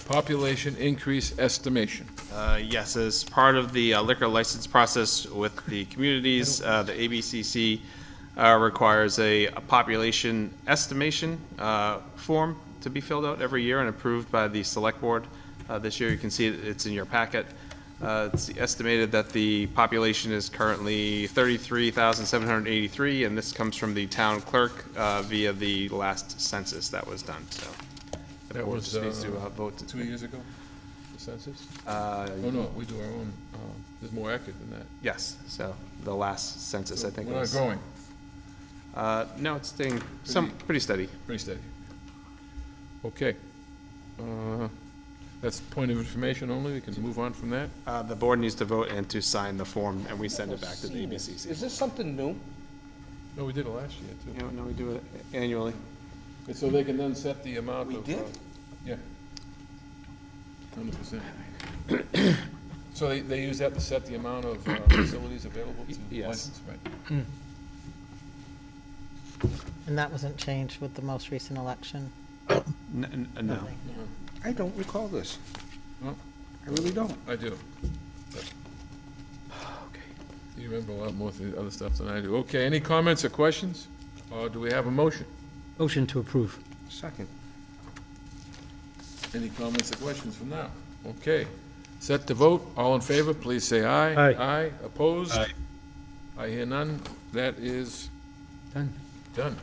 population increase estimation. Uh, Yes, as part of the uh, liquor license process with the communities, uh, the ABCC uh, requires a a population estimation uh, form to be filled out every year and approved by the Select Board. Uh, This year, you can see it- it's in your packet. Uh, It's estimated that the population is currently 33,783, and this comes from the town clerk uh, via the last census that was done, so. the That board was, just needs to, uh, uh, vote to- Two years ago, the census? Uh, Oh, no, we do our own, um, it's more accurate than that. Yes, so the last census, I think. We're not was- growing, Uh, no, it's staying some, pretty steady. pretty steady. Okay. Uh, That's point of information only, we can move on from that. Uh, the board needs to vote and to sign the form, and we send it back to the Seen this. ABCC. Is this something new? No, we did it last year, too. You know, no, we do it annually. And so they can then set the amount We of. did? uh, Yeah. Hundred percent. So they, they use that to set the amount of uh, facilities available to Yes. license, right? And that wasn't changed with the most recent election? N- n- No. I don't recall this. Well, I really don't. I do. You remember a lot more of the other stuff than I do. Okay, any comments or questions? Or do we have a motion? Motion to approve. Second. Any comments or questions from now? Okay. Set to vote. All in favor, please say aye. Aye. Aye. Opposed? I hear none. That is Done. Done.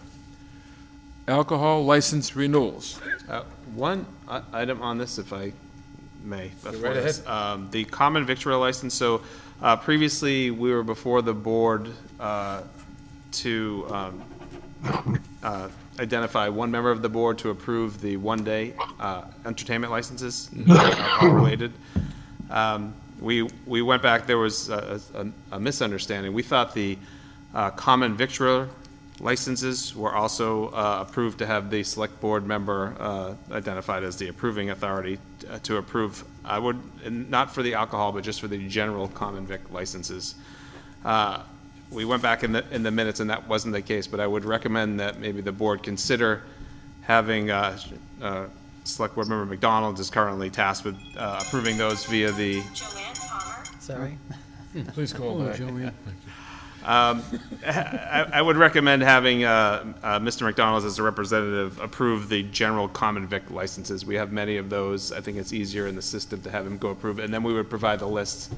Alcohol license renewals. Uh, One i- item on this, if I may. before right this. Um, The common victual license, so uh, previously, we were before the board uh, to um, uh, identify one member of the board to approve the one-day uh, entertainment licenses, alcohol-related. Um, We, we went back, there was a a- a misunderstanding. We thought the uh, common victular licenses were also uh, approved to have the select board member uh, identified as the approving authority uh, to approve, I would, and not for the alcohol, but just for the general common vic licenses. Uh, We went back in the, in the minutes, and that wasn't the case, but I would recommend that maybe the board consider having uh, uh, Select Board Member McDonald is currently tasked with uh, approving those via the, Joanne Palmer. Sorry. Please call back. Um, I I would recommend having uh, uh, Mr. McDonald as a representative approve the general common vic licenses. We have many of those. I think it's easier in the system to have him go approve, it, and then we would provide the list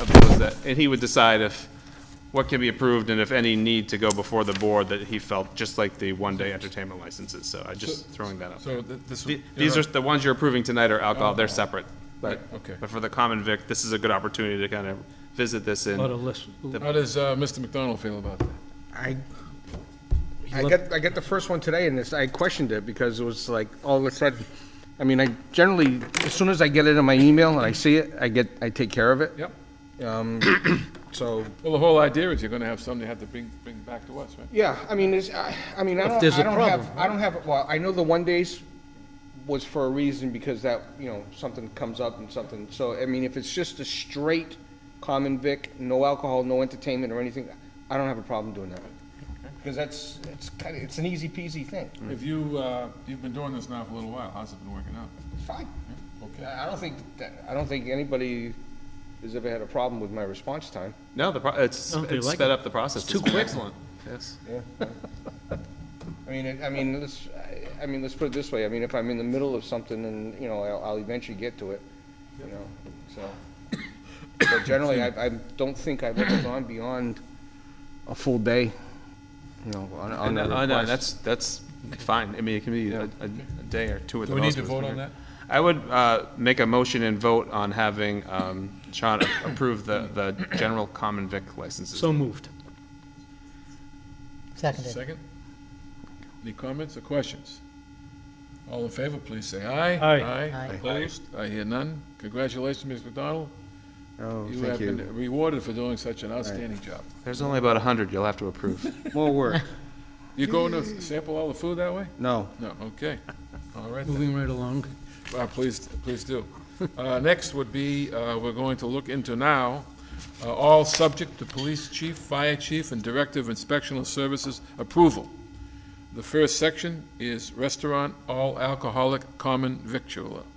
of those that, and he would decide if, what can be approved and if any need to go before the board that he felt, just like the one-day entertainment licenses. So I just throwing that up. So th- this. The- These are, the ones you're Oh. approving tonight are alcohol, they're separate. But, Right, okay. but for the common vic, this is a good opportunity to kind of visit this in. Lot of list. How does uh, Mr. McDonald feel about that? I, I got, I got the first one today and this, I questioned it because it was like, all of a sudden, I mean, I generally, as soon as I get it in my email and I see it, I get, I take care of it. Yep. So, Well, the whole idea is you're gonna have something you have to bring, bring back to us, right? yeah, I mean, it's, I, I mean, I don't, there's I a don't have, problem. I don't have, well, I know the one days was for a reason because that, you know, something comes up and something, so, I mean, if it's just a straight common vic, no alcohol, no entertainment or anything, I don't have a problem doing that. Because that's, it's kind of, it's an easy peasy thing. If you, uh, you've been doing this now for a little while, how's it been working out? Fine. Okay. I I don't think, that- I don't think anybody has ever had a problem with my response time. No, the, pro- it's, I don't think it's they like sped it. up the process. It's too been quick. Excellent, yes. I mean, it- I mean, let's, I- I mean, let's put it this way, I mean, if I'm in the middle of something and, you know, I'll, I'll eventually get to it, you know, so. But generally, I, I don't think I've ever gone beyond a full day, you know, on, on And, a uh, request. no, that's, that's fine. I mean, it can be a, a a day or two at Do the we need most. to vote on that? I would, uh, make a motion and vote on having, um, Sean approve the, the general common vic licenses. So moved. Seconded. Second? Any comments or questions? All in favor, please say aye. Aye. Aye. Aye. Opposed? I hear none. Congratulations, Ms. McDonald. Oh, You have been rewarded for doing such an outstanding job. There's only about a hundred you'll have to approve. More work, You going to sample all the food that way? no. No, okay. All right then. Moving right along. Uh, Please, please do. Uh, Next would be, uh, we're going to look into now, uh, all subject to police chief, fire chief, and director of inspectional services approval. The first section is restaurant, all alcoholic, common victualler.